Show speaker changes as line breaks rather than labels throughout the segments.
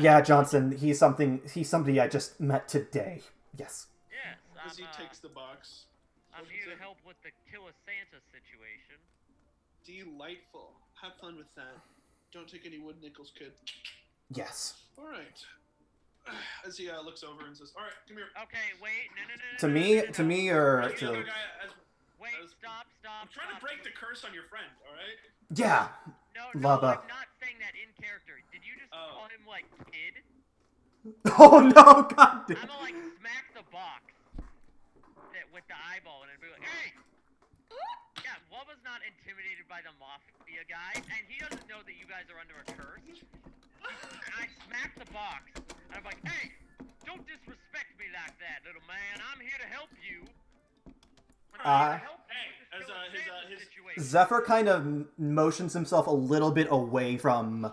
yeah, Johnson. He's something. He's somebody I just met today. Yes.
Yes, I'm,
As he
uh,
takes the box.
I'm
opens
here to
it.
help with the Killa Santa situation.
Delightful. Have fun with that. Don't take any wood nickels, kid.
Yes.
All right. As he uh, looks over and says, "All right, come here."
Okay, wait, no, no, no, no.
To
no,
me,
no, no,
to
no.
me, or
Hey, the other
to
guy, as-
Wait,
I was-
stop, stop.
I'm trying to
stop.
break the curse on your friend. All right.
yeah.
No, no,
Lava.
I'm not saying that in character. Did you just
Oh.
call him like kid?
Oh no, God.
I'm gonna like smack the box that with the eyeball and it'd be like, hey. Yeah, Wubba's not intimidated by the mafia guys, and he doesn't know that you guys are under a curse. And I smack the box, and I'm like, hey, don't disrespect me like that, little man. I'm here to help you.
Uh,
Hey, as, uh, his, uh, his-
Zephyr kind of m- motions himself a little bit away from,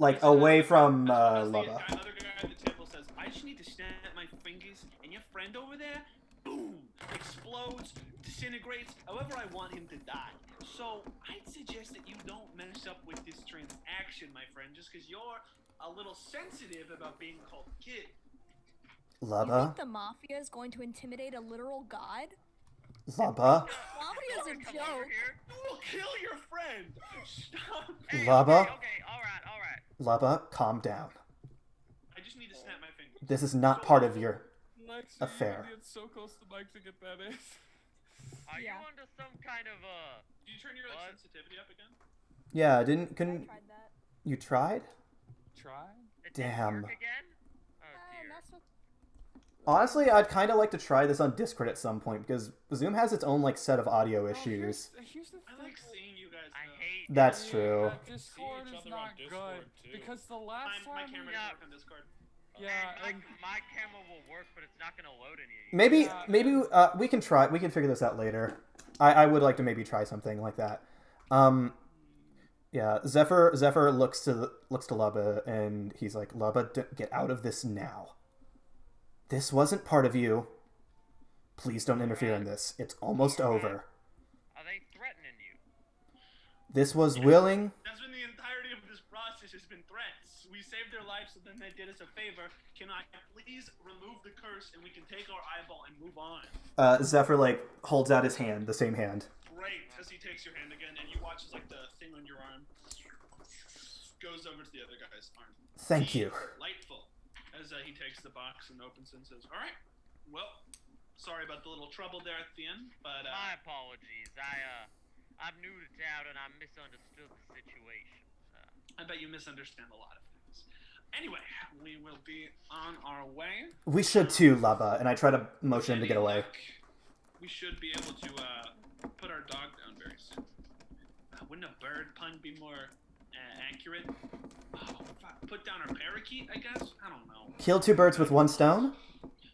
like, away from uh,
As the
Lubba.
guy- other guy at the table says, "I just need to snap my fingers, and your friend over there, boom, explodes, disintegrates, however I want him to die." So I'd suggest that you don't mess up with this transaction, my friend, just because you're a little sensitive about being called kid.
You think
Lubba,
the mafia is going to intimidate a literal god?
Lubba,
Mafia is a joke.
You will kill your friend. Stop.
Lava?
Okay, okay, all right, all right.
Lubba, calm down.
I just need to snap my fingers.
This is not part of your.
Lex,
A
you
fair.
really did so close to Mike to get that in.
Are
Yeah.
you under some kind of uh?
Do you turn your like,
What?
sensitivity up again?
Yeah, didn't
I
couldn't
tried that.
you tried?
Try?
It didn't
Damn.
work again? Oh
Uh,
dear.
that's what-
Honestly, I'd kind of like to try this on Discord at some point because Zoom has its own like set of audio
No,
issues.
Oh, here's, here's the thing.
I like seeing you guys.
I
though.
hate.
That's
Yeah,
true.
that uh, Discord
each
is
other on
not
Discord,
good.
too.
Because the
My,
last
my
time.
camera
we-
doesn't work on Discord.
And
Yeah,
my,
and
my camera will work, but it's not gonna load any.
Maybe
Yeah.
maybe uh, we can try. We can figure this out later. I, I would like to maybe try something like that. Um, yeah, Zephyr Zephyr looks to the- looks to Lubba and he's like, Lubba, d- get out of this now. This wasn't part of you. Please don't interfere in this. It's almost over.
Are Oh, they threatening you?
This was willing.
That's been the entirety of this process has been threats. We saved their lives, so then they did us a favor. Can I please remove the curse and we can take our eyeball and move on?
Uh, Zephyr like holds out his hand, the same hand.
Great. As he takes your hand again, and you watch as like the thing on your arm goes over to the other guy's arm.
Thank you.
Delightful. As uh, he takes the box and opens it and says, "All right, well, sorry about the little trouble there at the end, but
My
uh,
apologies. I uh, I'm new to town and I misunderstood the situation. Uh,
I bet you misunderstand a lot of things." Anyway, we will be on our way.
We should too, Lubba. And I try to motion him to
Any
Oh, get away.
luck, We should be able to uh, put our dog down very soon. Uh, wouldn't a bird pun be more uh, accurate? Oh, fuck. Put down our parakeet, I guess? I don't know.
Kill two birds with one stone.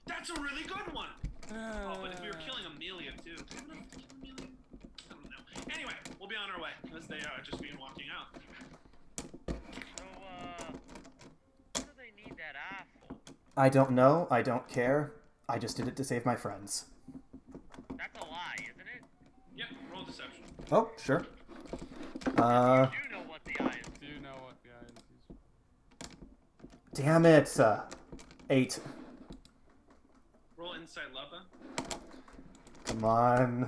That's a really good one! Oh, but if we were
uh,
killing Amelia, too. Could we not kill Amelia? I don't know. Anyway, we'll be on our way as they are just being walking out.
so uh, what do they need that eye for?
I don't know. I don't care. I just did it to save my friends.
That's a lie, isn't it?
Yep, roll deception.
Oh, sure. Uh,
You know what the eye is.
Do you know what the item is?
damn it. Uh, eight.
Roll insight lava.
Come on.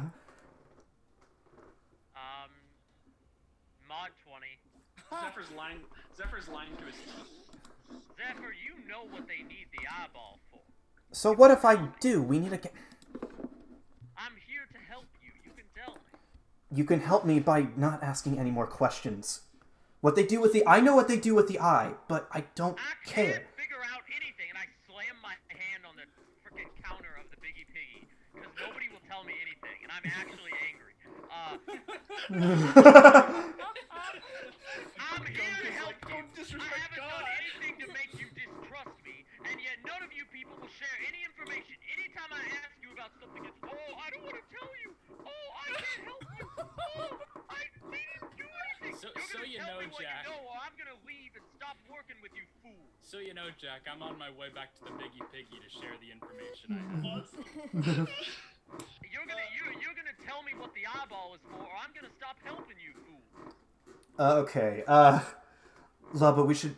Um, mod twenty.
Zephyr's lying. Zephyr's lying to his teeth.
Zephyr, you know what they need the eyeball for.
So what if I do? We need a. Ca-
I'm here to help you. You can tell me.
you can help me by not asking any more questions. What they do with the I know what they do with the eye, but I don't
I can't
care.
figure out anything, and I slam my hand on the frickin' counter of the Biggie Piggy because nobody will tell me anything, and I'm actually angry. Uh,
Uh,
I'm here to help you.
Don't disrespect
I haven't
God.
done anything to make you distrust me, and yet none of you people will share any information. Anytime I ask you about something, it's oh, I don't want to tell you. Oh, I can't help you. Oh, I didn't do anything.
So-
You're
so
gonna
you
tell
know,
me what
Jack.
you know, or I'm gonna leave and stop working with you, fool.
So you know, Jack, I'm on my way back to the Biggie Piggy to share the information I have.
You're gonna you're, you're gonna tell me what the eyeball is for, or I'm gonna stop helping you, fool.
Uh, okay. Uh, Lubba, we should.